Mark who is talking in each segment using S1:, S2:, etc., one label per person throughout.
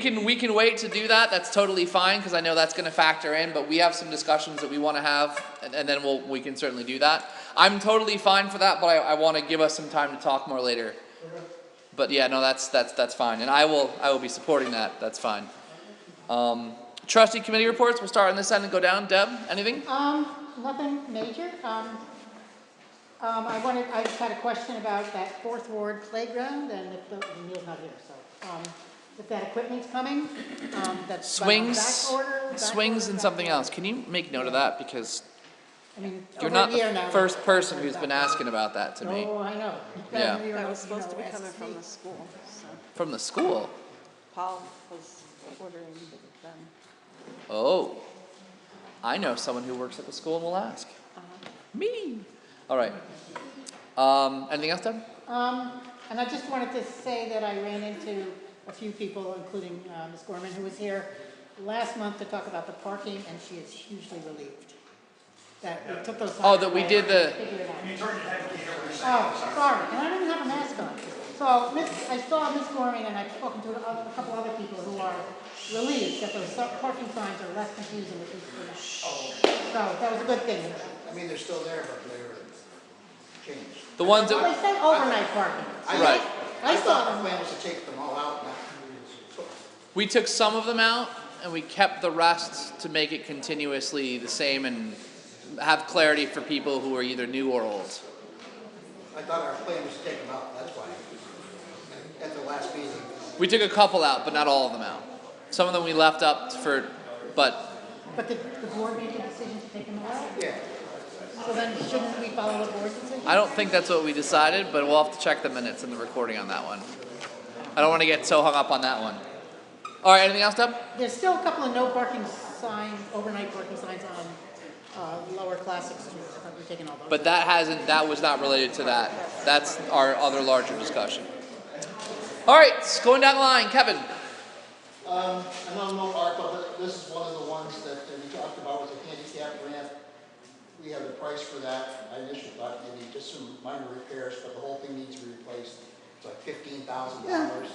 S1: We can, we can wait to do that, that's totally fine, because I know that's gonna factor in, but we have some discussions that we wanna have, and, and then we'll, we can certainly do that. I'm totally fine for that, but I, I wanna give us some time to talk more later. But yeah, no, that's, that's, that's fine, and I will, I will be supporting that, that's fine. Um, trustee committee reports, we'll start on this end and go down, Deb, anything?
S2: Um, nothing major, um, um, I wanted, I just had a question about that fourth ward playground, and if, the- Neil's not here, so, um, if that equipment's coming, um, that's. back-
S1: Swings,
S2: back order, back
S1: swings
S2: order,
S1: and
S2: back
S1: something
S2: order.
S1: else, can you make note of that, because
S2: I mean,
S1: you're
S2: over
S1: not
S2: a year now.
S1: the first person who's been asking about that to me,
S2: No, I know.
S1: Yeah.
S2: We were,
S3: That was
S2: you know,
S3: supposed to be coming
S2: asked
S3: from
S2: me.
S3: the school, so
S1: from the school,
S3: Paul was ordering them.
S1: Oh, I know someone who works at the school and will ask. Me. All right. Um, anything else, Deb?
S2: Um, and I just wanted to say that I ran into a few people, including, uh, Ms. Gorman, who was here last month to talk about the parking, and she is hugely relieved that we took those.
S1: Oh, that we
S2: signs away
S1: did the-
S2: and figured it out. Oh, sorry, and I don't even have a mask on. So, Miss, I saw Miss Gorman and I've spoken to a a couple other people who are relieved that those so- parking signs are less confusing with these people. So, that was a good thing.
S4: I mean, they're still there, but they were changed.
S1: The ones
S2: Well,
S1: that,
S2: they said overnight parking.
S4: I-
S1: Right.
S2: I saw
S4: The
S2: them.
S4: plan was to take them all out now.
S1: we took some of them out and we kept the rest to make it continuously the same and have clarity for people who are either new or old.
S4: I thought our plan was to take them out, that's why. At the last meeting,
S1: We took a couple out, but not all of them out. Some of them we left up for, but
S2: But the, the board made the decision to take them out,
S4: yeah,
S2: so then shouldn't we follow the board's decision?
S1: I don't think that's what we decided, but we'll have to check the minutes and the recording on that one. I don't wanna get so hung up on that one. Alright, anything else, Deb?
S2: There's still a couple of no parking signs, overnight parking signs on, uh, Lower Classic Street, I thought we were taking all those.
S1: But that hasn't, that was not related to that. That's our other larger discussion. All right, s- going down the line, Kevin.
S5: Um, I know no ARPA, but this is one of the ones that that we talked about with the handicap ramp. We have the price for that. I initially thought maybe just some minor repairs, but the whole thing needs to be replaced.
S4: it's like fifteen thousand dollars.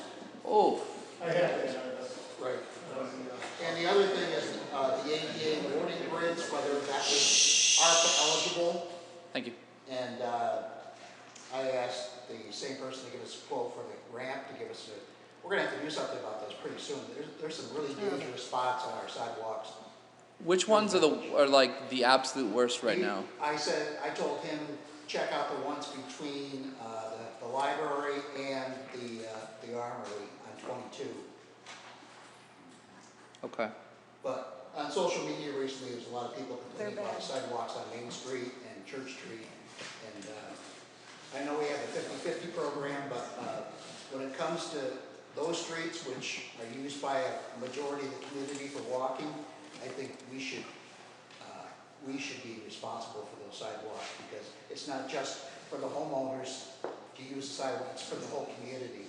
S1: Oh,
S4: Right. And the other thing is, uh, the ADA warning grids, whether that was ARPA eligible.
S1: thank you.
S4: And, uh, I asked the same person to give us a quote for the ramp, to give us a, we're gonna have to do something about those pretty soon. There's, there's some really
S1: Hmm.
S4: dangerous spots on our sidewalks.
S1: Which ones are the, are like the absolute worst right
S4: He-
S1: now?
S4: I said, I told him, check out the ones between, uh, the, the library and the, uh, the armory on twenty-two.
S1: Okay.
S4: But on social media recently, there's a lot of people complaining
S3: They're
S4: about
S3: bad.
S4: sidewalks on Main Street and Church Street. And, uh, I know we have the fifty-fifty program, but, uh, when it comes to those streets, which are used by a majority of the community for walking, I think we should, uh, we should be responsible for those sidewalks, because it's not just for the homeowners to use the sidewalks, for the whole community.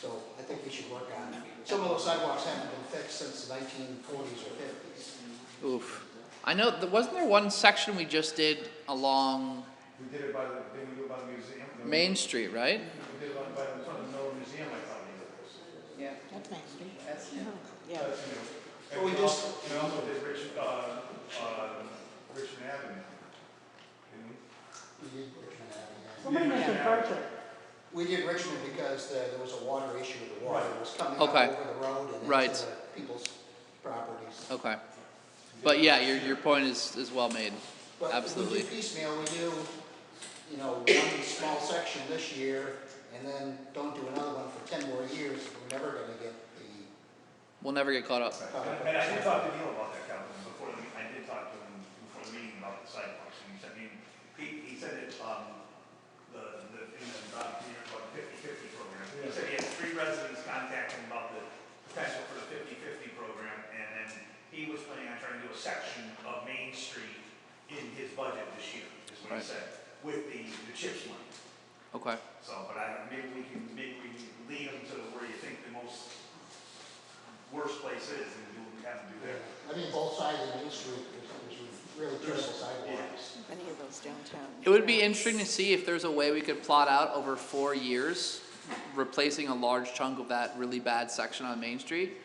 S4: So I think we should work on, some of those sidewalks haven't been fixed since the nineteen forties or fifties.
S1: Oof. I know, th- wasn't there one section we just did along
S6: We did it by the, did we do it by the museum? No,
S1: Main Street, right?
S6: We did it by, by the, front of the Miller Museum, I thought Uh, we did this.
S2: That's Main Street.
S3: Yeah,
S6: That's new. And
S4: Well, we just-
S6: also- We also did Rich, uh, uh, Richmond Avenue. Didn't we?
S4: We did Richmond Avenue.
S2: Somebody mentioned Berkeley.
S4: We did Richmond because there, there was a water issue, the water was coming up
S1: Okay.
S4: over the road and
S1: Right.
S4: into people's properties.
S1: Okay. But yeah, your, your point is, is well made. Absolutely.
S4: But if we do piecemeal, we do, you know, one small section this year, and then don't do another one for ten more years, we're never gonna get the,
S1: We'll never get caught up.
S6: And and I did talk to Neil about that, Calvin, before the, I did talk to him before the meeting about the sidewalks, and he said, I mean, he, he said it, um, the, the, in the, about, you know, about fifty-fifty program. He said he had three residents contact him about the potential for the fifty-fifty program, and then he was planning on trying to do a section of Main Street in his budget this year, is what he
S1: Right.
S6: said, with the, the CHIPS money.
S1: Okay.
S6: So, but I, maybe we can, maybe we can lead them to where you think the most worst place is, and we'll have to do there.
S4: I mean, both sides of Main Street, there's, there's really terrible sidewalks.
S3: any of those downtown.
S1: It would be interesting to see if there's a way we could plot out over four years replacing a large chunk of that really bad section on Main Street.